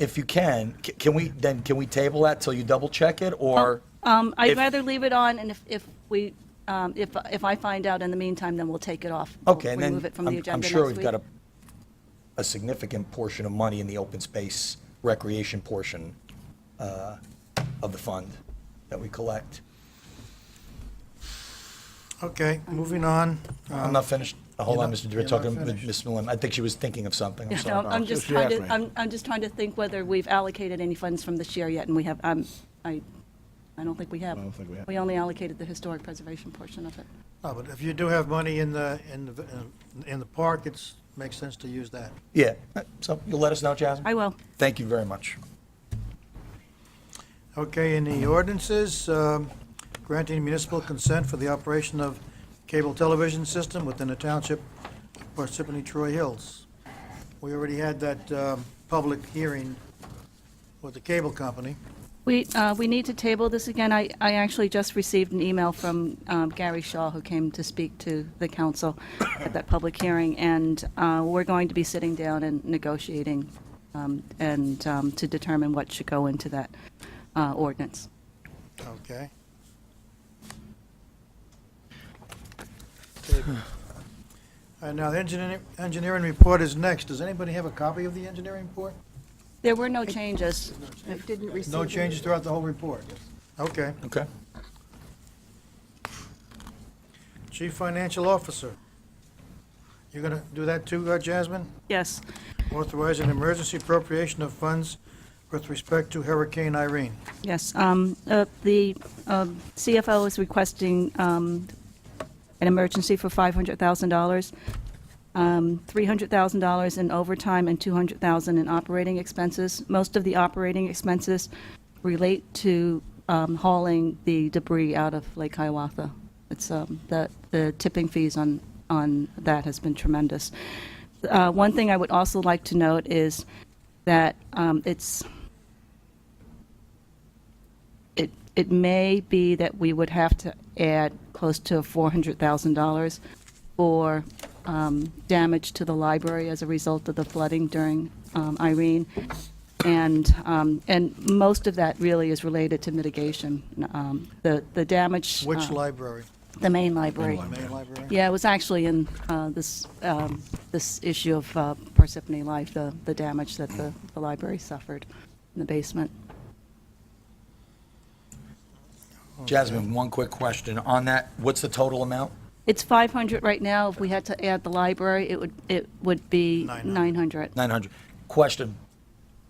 If you can, c- can we, then can we table that till you double check it or? Um, I'd If- rather leave it on, and if, if we, um, if, if I find out in the meantime, then we'll take it off. We'll Okay, and then Remove Oh. it from the I'm- agenda I'm sure next we've got a, week. a significant portion of money in the open space recreation portion uh, of the fund that we collect. Okay, moving on. I'm not finished, hold on, Uh, You're Mr. not- Dewar, you're not talking with finished. Ms. Millen. I think she was thinking of something, I'm No, sorry. I'm just She trying to, asked me. I'm, I'm just trying to think whether we've allocated any funds from this year yet, and we have, um, I, I don't think we have. I don't think we have. We only allocated the historic preservation portion of it. No, Oh, but if you do have money in the, in the, in the park, it's, makes sense to use that. Yeah, so you'll let us know, Jasmine? I will. Thank you very much. Okay, in the ordinances, um, granting municipal consent for the operation of cable television system within the township of Parsippany Troy Hills. We already had that um, public hearing with the cable company. We, uh, we need to table this again. I, I actually just received an email from um, Gary Shaw, who came to speak to the council at that public hearing, and uh, we're going to be sitting down and negotiating um, and um, to determine what should go into that uh, ordinance. Okay. All right, Uh, now, the engineering, engineering report is next. Does anybody have a copy of the engineering report? There were no changes. I didn't receive. No it. changes throughout the whole report? Okay. Okay. Chief Financial Officer. You're gonna do that too, uh, Jasmine? Yes. Authorize an emergency appropriation of funds with respect to Hurricane Irene. Yes, um, uh, the um, CFO is requesting um, an emergency for $500,000, um, $300,000 in overtime, and $200,000 in operating expenses. Most of the operating expenses relate to um, hauling the debris out of Lake Hiawatha. It's, um, the the tipping fees on, on that has been tremendous. Uh, One thing I would also like to note is that um, it's, it, it may be that we would have to add close to $400,000 for um, damage to the library as a result of the flooding during um, Irene. And, um, and most of that really is related to mitigation. Um, The, the damage. Which uh, library? The main library. Main library? Yeah, it was actually in uh, this, um, this issue of uh, Parsippany Life, the, the damage that the, the library suffered in the basement. Jasmine, one quick question on that. What's the total amount? It's 500 right now. If we had to add the library, it would, it would be 900. 900. 900. Question,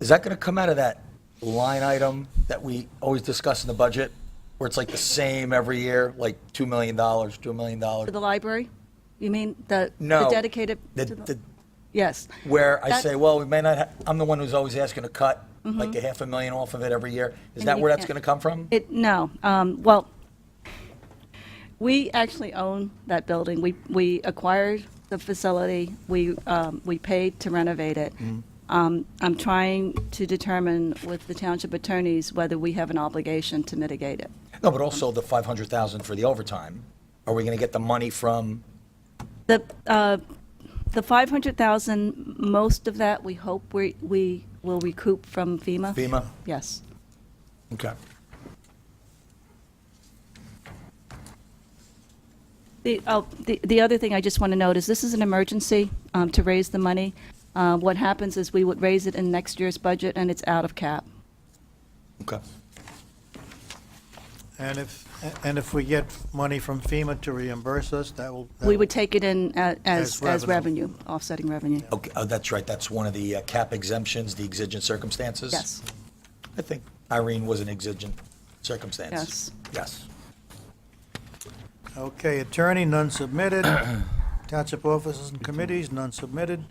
is that going to come out of that line item that we always discuss in the budget, where it's like the same every year, like $2 million, $2 For million? the library? You mean the the No. dedicated? The- to the- the- Yes. Where I That- Mm-hmm. say, well, we may not, ha- I'm the one who's always asking to cut like a half a million off of it every year. Is And that you where that's can't- going to come from? It, no, um, well, we actually own that building. We, we acquired the facility, we, um, we paid to renovate it. Mm-hmm. Um, I'm trying to determine with the township attorneys whether we have an obligation to mitigate it. No, but also the 500,000 for the overtime. Are we going to get the money from, The, uh, the 500,000, most of that, we hope we, we will recoup from FEMA. FEMA? Yes. Okay. The, oh, the, the other thing I just want to note is this is an emergency, um, to raise the money. Uh, what happens is we would raise it in next year's budget and it's out of cap. Okay. And if, and if we get money from FEMA to reimburse us, that will. that We will- would take it in a- as, As as revenue. revenue, offsetting revenue. Okay, oh, that's right, that's one of the uh, cap exemptions, the exigent circumstances? Yes. I think Irene was an exigent circumstance. Yes. Yes. Okay, attorney, none submitted. Township offices and committees, none submitted.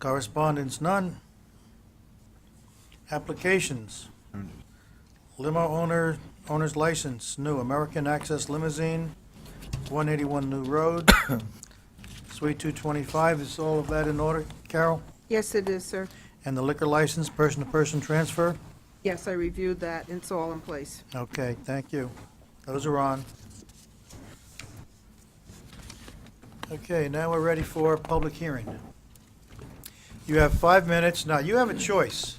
Correspondence, none. Applications. Limo owner, owner's license, new American Access Limousine, 181 New Road, Suite 225, is all of that in order, Carol? Yes, it is, sir. And the liquor license, person-to-person transfer? Yes, I reviewed that, and it's all in place. Okay, thank you. Those are on. Okay, now we're ready for a public hearing. You have five minutes. Now, you have a choice.